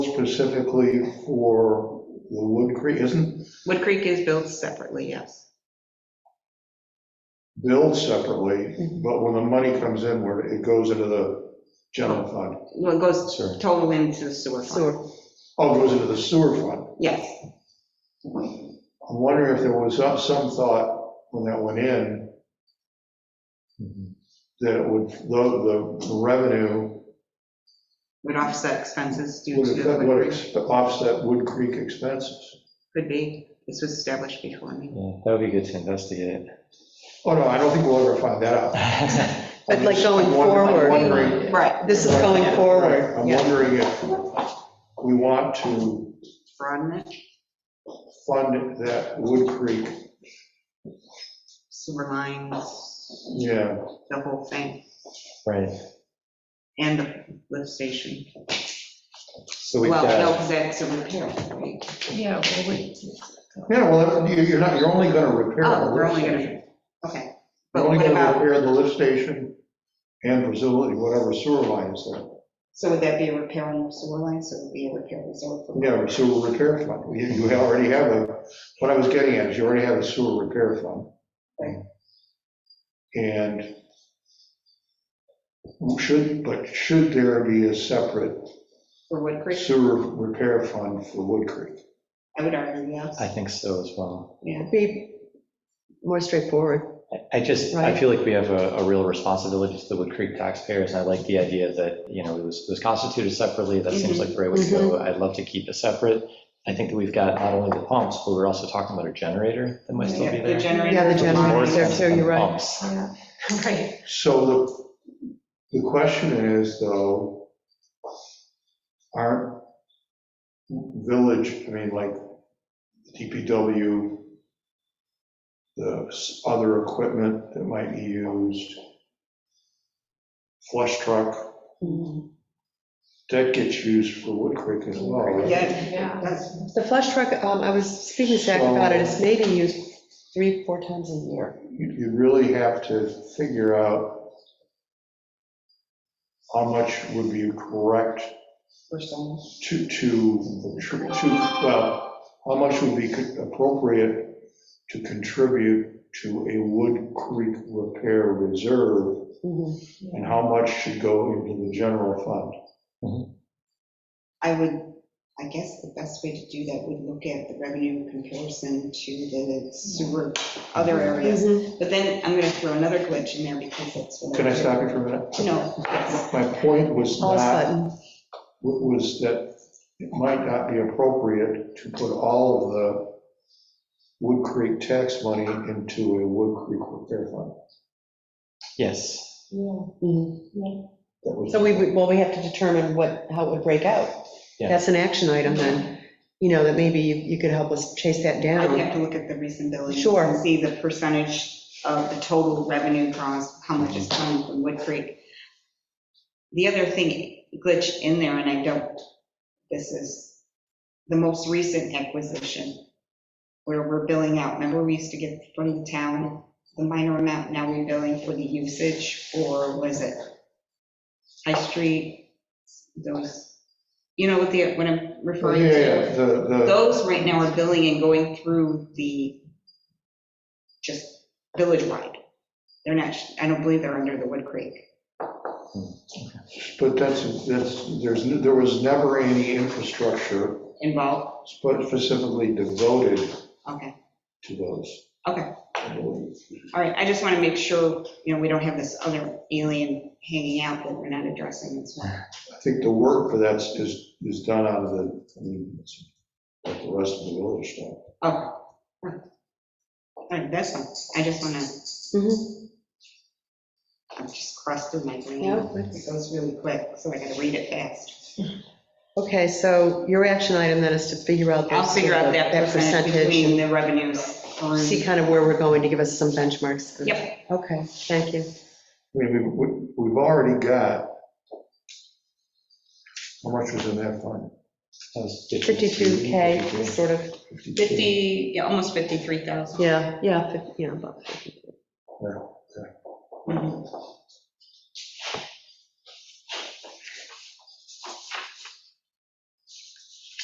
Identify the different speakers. Speaker 1: specifically for the Wood Creek, isn't
Speaker 2: Wood Creek is billed separately, yes.
Speaker 1: billed separately,
Speaker 3: Mm-hmm.
Speaker 1: but when the money comes in, where it goes into the general fund,
Speaker 2: Well, it goes
Speaker 1: sorry.
Speaker 2: total into the sewer fund.
Speaker 3: Sewer.
Speaker 1: Oh, it goes into the sewer fund.
Speaker 2: Yes,
Speaker 1: I'm wondering if there was some- some thought when that went in, that it would, the, the revenue
Speaker 2: would offset expenses due
Speaker 1: would
Speaker 2: to the
Speaker 1: affect,
Speaker 2: Wood
Speaker 1: would
Speaker 2: Creek,
Speaker 1: ex- offset Wood Creek expenses.
Speaker 2: could be. This was established before me.
Speaker 4: Yeah, That would be good to investigate.
Speaker 1: Oh, no, I don't think we'll ever find that out.
Speaker 3: But like going
Speaker 1: I'm wondering- I'm
Speaker 3: forward.
Speaker 1: wondering-
Speaker 2: Right,
Speaker 3: This is going
Speaker 1: Right, right.
Speaker 3: forward,
Speaker 1: I'm
Speaker 3: yeah.
Speaker 1: wondering if we want to
Speaker 2: broaden it,
Speaker 1: fund that Wood Creek,
Speaker 2: sewer lines,
Speaker 1: yeah,
Speaker 2: the whole thing,
Speaker 4: Right,
Speaker 2: and the lift station.
Speaker 4: so we've
Speaker 2: Well, no,
Speaker 4: got,
Speaker 2: because that's a repair, right?
Speaker 3: Yeah, well, we.
Speaker 1: yeah, well, you- you're not, you're only gonna repair the
Speaker 2: Oh, we're
Speaker 1: lift
Speaker 2: only gonna-
Speaker 1: station.
Speaker 2: Okay.
Speaker 1: You're
Speaker 2: But
Speaker 1: only
Speaker 2: what
Speaker 1: gonna
Speaker 2: about,
Speaker 1: repair the lift station and presumably whatever sewer line is there.
Speaker 2: so would that be a repair on the sewer line, so it would be a repair reserve for?
Speaker 1: Yeah, or sewer repair fund. You, you already have a, what I was getting at is you already have a sewer repair fund.
Speaker 2: Right.
Speaker 1: And should, but should there be a separate
Speaker 2: For Wood Creek,
Speaker 1: sewer repair fund for Wood Creek?
Speaker 2: I would argue yes.
Speaker 4: I think so as well.
Speaker 2: Yeah.
Speaker 3: Be more straightforward.
Speaker 4: I- I just, I
Speaker 3: Right.
Speaker 4: feel like we have a, a real responsibility to the Wood Creek taxpayers, and I like the idea that, you know, it was, it was constituted separately, that seems
Speaker 3: Mm-hmm.
Speaker 4: like the right way to go. I'd love to keep it separate. I think that we've got not only the pumps, but we're also talking about a generator that might still be
Speaker 2: Yeah,
Speaker 4: there.
Speaker 2: The
Speaker 3: Yeah, the
Speaker 2: generator,
Speaker 3: generator
Speaker 4: More
Speaker 3: there
Speaker 4: sense
Speaker 3: too,
Speaker 4: than
Speaker 3: you're right.
Speaker 4: pumps.
Speaker 3: Yeah.
Speaker 2: right,
Speaker 1: So the, the question is though, aren't village, I mean, like DPW, the s- other equipment that might be used, flush truck, that gets used for Wood Creek as well. right?
Speaker 2: yeah, that's,
Speaker 3: The flush truck, um, I was speaking to Zach about it, it's maybe used three, four times a year.
Speaker 1: You you really have to figure out how much would be correct
Speaker 2: for some.
Speaker 1: to, to, to, well, how much would be appropriate to contribute to a Wood Creek repair reserve,
Speaker 2: Mm-hmm.
Speaker 3: Mhm.
Speaker 1: and how much should go into the general fund?
Speaker 2: I would, I guess the best way to do that would look at the revenue comparison to the sewer, other areas. But then I'm gonna throw another glitch in there because that's. what
Speaker 1: Can I stop you for a minute?
Speaker 2: No, yes,
Speaker 1: My point was
Speaker 3: All
Speaker 1: not,
Speaker 3: sudden,
Speaker 1: was that it might not be appropriate to put all of the Wood Creek tax money into a Wood Creek repair fund.
Speaker 4: Yes,
Speaker 3: Mhm.
Speaker 1: That was-
Speaker 3: So we, would- well, we have to determine what, how it would break out.
Speaker 4: Yeah.
Speaker 3: That's an action item then, you know, that maybe you you could help us chase that
Speaker 2: I would
Speaker 3: down.
Speaker 2: have to look at the reasonability.
Speaker 3: Sure.
Speaker 2: And see the percentage of the total revenue draws, how much is coming from Wood Creek. The other thing glitch in there, and I don't, this is the most recent acquisition where we're billing out. Remember, we used to get from the town the minor amount, now we're billing for the usage, or was it High Street, those, you know what the, what I'm
Speaker 1: Yeah,
Speaker 2: referring to?
Speaker 1: yeah, the, the,
Speaker 2: Those right now are billing and going through the, just village-wide. They're not, I don't believe they're under the Wood Creek.
Speaker 1: but that's, that's, there's, there was never any infrastructure
Speaker 2: involved.
Speaker 1: specifically devoted
Speaker 2: Okay,
Speaker 1: to those.
Speaker 2: Okay.
Speaker 1: I believe.
Speaker 2: all right, I just want to make sure, you know, we don't have this other alien hanging out that we're not addressing as well.
Speaker 1: I think the work for that is, is done out of the, I mean, it's like the rest of the village stuff.
Speaker 2: Oh, all right, that's, fine. I just want to,
Speaker 3: Mhm.
Speaker 2: I'm just crusted my brain.
Speaker 3: Yeah.
Speaker 2: It goes really quick, so I got to read it fast.
Speaker 3: Okay, so your action item then is to figure out.
Speaker 2: I'll
Speaker 3: those-
Speaker 2: figure out that percentage
Speaker 3: percentage
Speaker 2: between
Speaker 3: and
Speaker 2: the revenues. on-
Speaker 3: See kind of where we're going to give us some benchmarks.
Speaker 2: Yep,
Speaker 3: Okay, thank you.
Speaker 1: I mean, we've- we, we've already got, how much was in that fund?
Speaker 4: that was
Speaker 3: 52K,
Speaker 4: 52.
Speaker 3: sort of,
Speaker 2: 50, yeah, almost 53,000.
Speaker 3: yeah, yeah, fif- yeah, about
Speaker 2: Mhm.